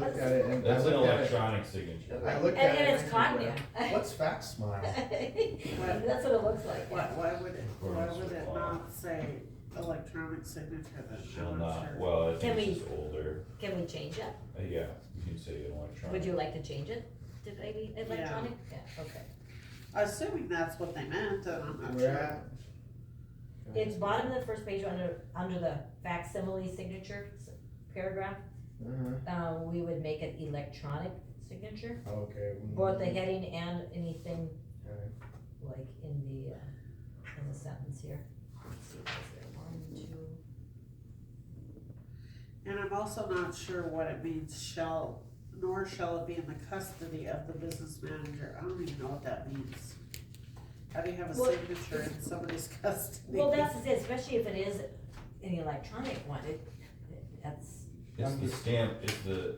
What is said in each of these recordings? looked at it and I That's an looked at it. electronic signature. I looked And, at it. and it's I said, cotton, yeah. What's fax smile? That's what it looks like. Why, why would it, why Accordance would with it law. not say electronic signature then? Shall I'm not, sure. well, I Can think it's we- just older, Can we change it? Uh, yeah, you can say electronic. Would you like to change it to maybe electronic? Yeah, okay. Assuming that's what they meant, and I'm not Where sure. at? It's bottom of the first page under, under the facsimile signature s- paragraph, Uh-huh. uh, we would make it electronic signature. Okay. Mm-hmm. Both the heading and anything Okay. like in the, uh, in the sentence here. Let's see, is there one, two? And I'm also not sure what it means shall, nor shall it be in the custody of the business manager. I don't even know what that means. How do you have a Well, signature in somebody's custody? Well, that's it, especially if it is an electronic one, it, that's, It's the stamp, it's the,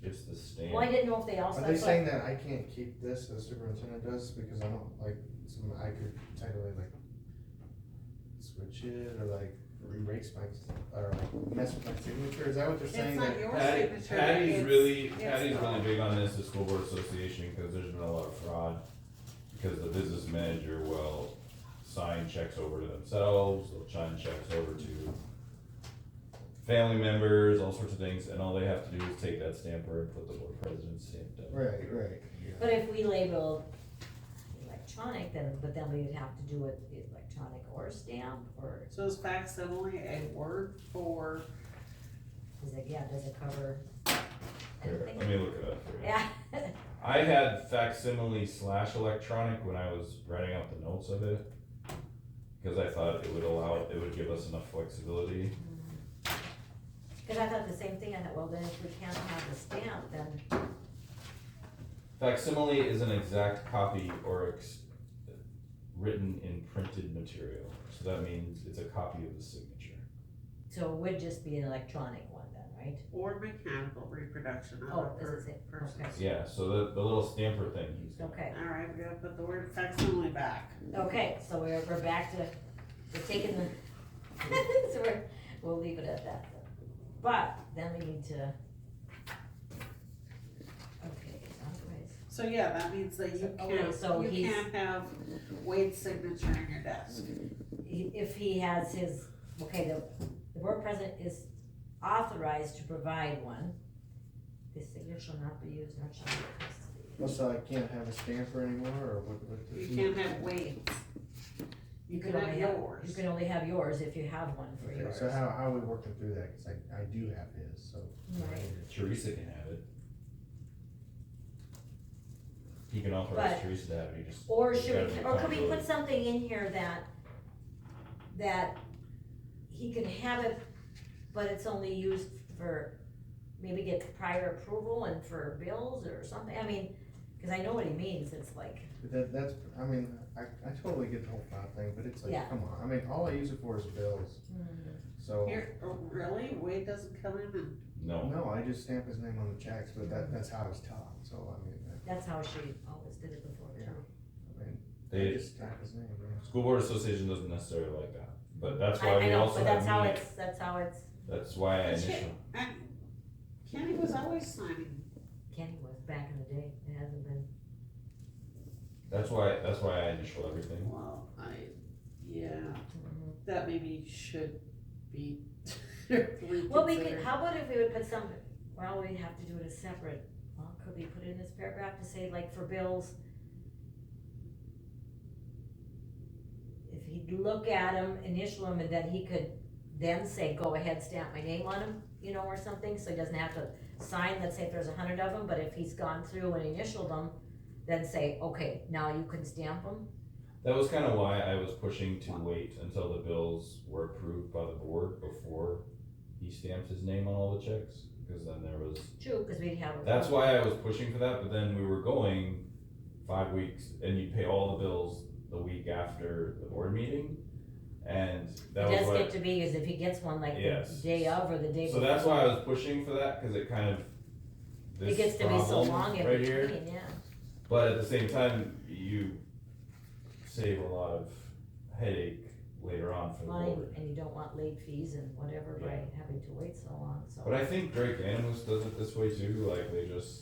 it's the well, I stamp. didn't know if they also. Are they saying that I can't keep this as superintendent does because I don't like, some, I could technically like switch it or like erase my, or like mess with my signature, is that what they're It's saying? not That your Patty- signature. Patty's it's- really, it's Patty's not. really big on this, the school board association, cause there's been a lot of fraud. Because the business manager will sign checks over to themselves, they'll sign checks over to family members, all sorts of things, and all they have to do is take that stamper and put the board president's stamp down. Right, right, yeah. But if we label electronic, then, but then we'd have to do it electronic or stamp, or So is facsimile a word for, is it, yeah, does it cover? Here, anything? let me look it up for you. Yeah, I had facsimile slash electronic when I was writing out the notes of it. Because I thought it would allow, it would give us enough flexibility. cause I thought the same thing, I thought, well, then if we can't have the stamp, then, Facsimile is an exact copy or ex- written in printed material. So that means it's a copy of the signature. so it would just be an electronic one then, right? or mechanical reproduction of a Oh, does it per- say, person? okay, Yeah, so the, the little stamper thing he's got. okay, All right, we gotta put the word facsimile back. okay, so we're, we're back to, we're taking the, so we're, we'll leave it at that then. But then we need to. Okay, otherwise. So yeah, that means that you Oh, wait, so can't, you he's- can't have Wade's signature in your desk. he- if he has his, okay, the, the board president is authorized to provide one. The signature shall not be used nor shall be requested. Well, so I can't have a stamper anymore or what, what? You can't have Wade's. You can have only You yours. can only have yours if you have one for Okay, yours. so how, how are we working through that, cause I, I do have his, so. Right. Teresa can have it. He can authorize But- Teresa to have it. He just. Or he's should gotta we, be or could we comfortable. put something in here that, that he can have it, but it's only used for, maybe get prior approval and for bills or something, I mean, cause I know what he means, it's like, But That, that's, I mean, I, I totally get the whole fraud thing, but it's Yeah. like, come on, I mean, all I use it for is bills, hmm. so. Here, oh, really? Wade doesn't come in and, No, No, I just stamp his name on the checks, but that, that's how I was taught, so I mean, I- that's how she always did it before too. Yeah. I mean, I they, just stamp his name, yeah. School Board Association doesn't necessarily like that, but that's I, why I we know, also but that's how have meetings. it's, that's how it's, That's why I That's it. initial, and Kenny was always signing. Kenny was back in the day, it hasn't been, that's why, that's why I initial everything. Well, I, yeah, Mm-hmm. that maybe should be reconsidered. well, we could, how about if we would put some, well, we have to do it as separate, well, could we put in this paragraph to say like for bills? If he'd look at them, initial them, and then he could then say, go ahead, stamp my name on them, you know, or something, so he doesn't have to sign, let's say if there's a hundred of them, but if he's gone through and initialed them, then say, okay, now you can stamp them, That was kind of why I was pushing to wait until the bills were approved by the board before he stamped his name on all the checks, because then there was, true, cause we'd have. a- that's why I was pushing for that, but then we were going five weeks, and you pay all the bills the week after the board meeting, and that It was does what. get to be, is if he gets one like the Yes. day of or the day. So that's why I was pushing for that, cause it kind of. It this gets to be so problem long in Right here. between, yeah. But at the same time, you save a lot of headache later on for the line, board. and you don't want late fees and whatever by Yeah. having to wait so long, so. But I think Drake Animus does it this way too, like they just